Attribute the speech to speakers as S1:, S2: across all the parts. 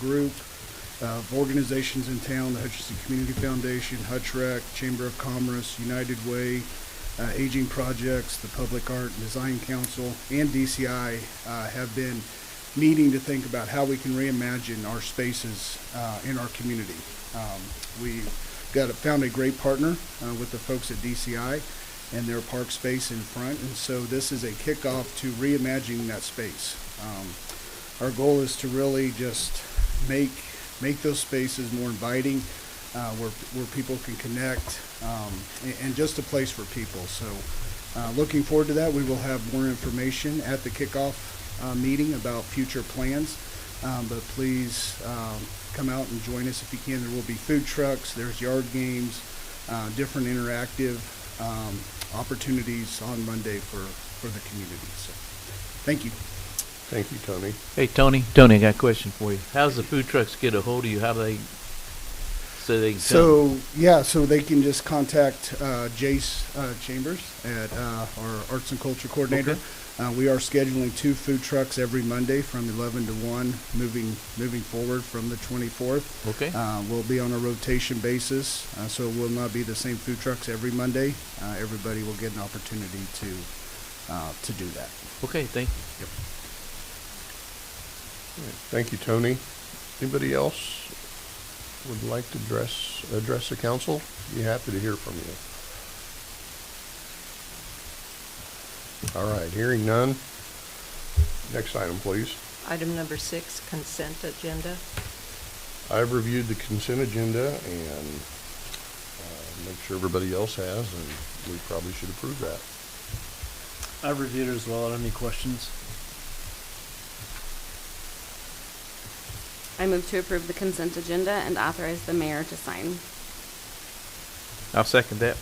S1: group of organizations in town, the Hutchinson Community Foundation, HUTCHREC, Chamber of Commerce, United Way, uh, Aging Projects, the Public Art and Design Council, and DCI uh, have been meeting to think about how we can reimagine our spaces uh, in our community. Um, we got found a great partner uh, with the folks at DCI and their park space in front, and so this is a kickoff to reimagining that space. Um, our goal is to really just make make those spaces more inviting, uh, where where people can connect, um, and, and just a place for people. So, uh, looking forward to that. We will have more information at the kickoff uh, meeting about future plans. Um, but please um, come out and join us if you can. There will be food trucks. There's yard games, uh, different interactive um, opportunities on Monday for for the community. So, thank you.
S2: Thank you, Tony.
S3: Hey, Tony, Tony, I got a question for you. How's the food trucks get a hold of you? How do they, so they can come?
S1: So, yeah, so they can just contact uh, Jace uh, Chambers at uh, our Arts and Culture Coordinator.
S3: Okay.
S1: Uh, we are scheduling two food trucks every Monday from 11 to 1, moving moving forward from the 24th.
S3: Okay,
S1: Uh, we'll be on a rotation basis, uh, so it will not be the same food trucks every Monday. Uh, everybody will get an opportunity to uh, to do that.
S3: okay, thank you.
S2: Thank you, Tony. Anybody else would like to address, address the council? Be happy to hear from you. All right, hearing none. Next item, please.
S4: Item number six, consent agenda.
S2: I've reviewed the consent agenda and uh, make sure everybody else has, and we probably should approve that.
S5: I've reviewed it as well. I don't have any questions.
S6: I move to approve the consent agenda and authorize the mayor to sign.
S3: I'll second that.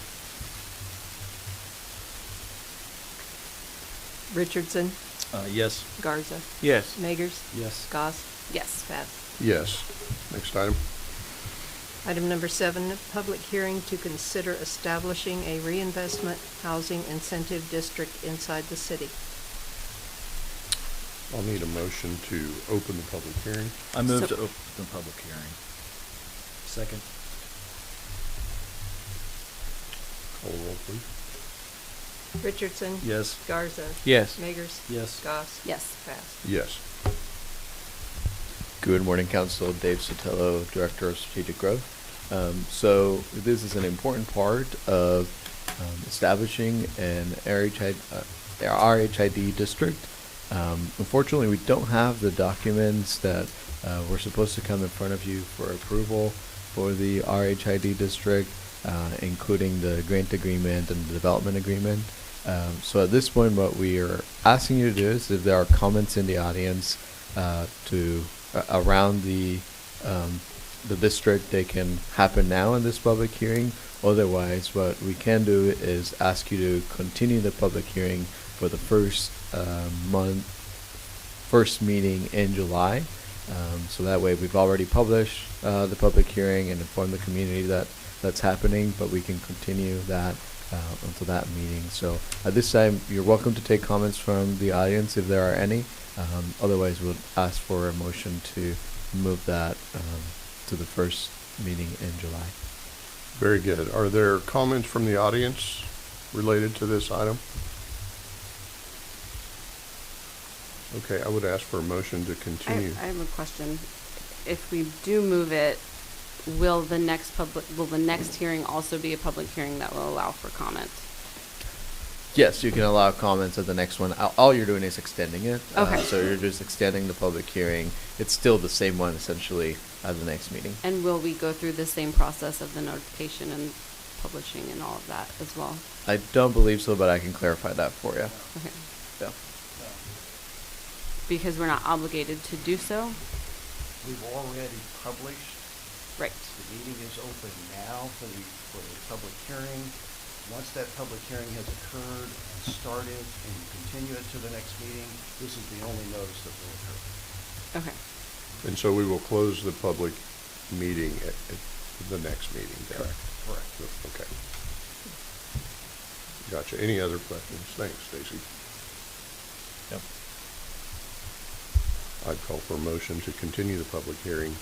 S4: Richardson,
S5: Uh, yes.
S4: Garza,
S3: Yes.
S4: Magers,
S5: Yes.
S4: Goss,
S6: Yes.
S4: Bath.
S2: Yes. Next item.
S4: Item number seven, public hearing to consider establishing a reinvestment housing incentive district inside the city.
S2: I'll need a motion to open the public hearing.
S5: I move
S4: So-
S5: to open the public hearing. Second.
S2: Call the roll, please.
S4: Richardson.
S5: Yes.
S4: Garza.
S3: Yes.
S4: Magers.
S5: Yes.
S4: Goss.
S6: Yes.
S4: Bath.
S2: Yes.
S7: Good morning, Council. Dave Sotelo, Director of Strategic Growth. Um, so this is an important part of um, establishing an RHID, uh, RHID district. Um, unfortunately, we don't have the documents that uh, were supposed to come in front of you for approval for the RHID district, uh, including the grant agreement and the development agreement. Um, so at this point, what we are asking you to do is if there are comments in the audience uh, to uh, around the um, the district, they can happen now in this public hearing. Otherwise, what we can do is ask you to continue the public hearing for the first uh, month first meeting in July. Um, so that way, we've already published uh, the public hearing and informed the community that that's happening, but we can continue that uh, until that meeting. So at this time, you're welcome to take comments from the audience if there are any. Um, otherwise, we'll ask for a motion to move that um, to the first meeting in July.
S2: Very good. Are there comments from the audience related to this item? Okay, I would ask for a motion to
S6: I,
S2: continue.
S6: I have a question. If we do move it, will the next public, will the next hearing also be a public hearing that will allow for comment?
S7: Yes, you can allow comments at the next one. All- All you're doing is extending it. Uh,
S6: Okay.
S7: so you're just extending the public hearing. It's still the same one essentially at the next meeting.
S6: And will we go through the same process of the notification and publishing and all of that as well?
S7: I don't believe so, but I can clarify that for you.
S6: Okay.
S7: Yeah.
S6: Because we're not obligated to do so?
S8: We've already published,
S6: Right.
S8: the meeting is open now for the, for the public hearing. Once that public hearing has occurred and started and you continue it to the next meeting, this is the only notice that will occur.
S6: Okay.
S2: And so we will close the public meeting at, at the next meeting. then.
S8: Correct.
S2: Okay. Gotcha. Any other questions? Thanks, Stacy.
S3: Yep.
S2: I'd call for a motion to continue the public hearing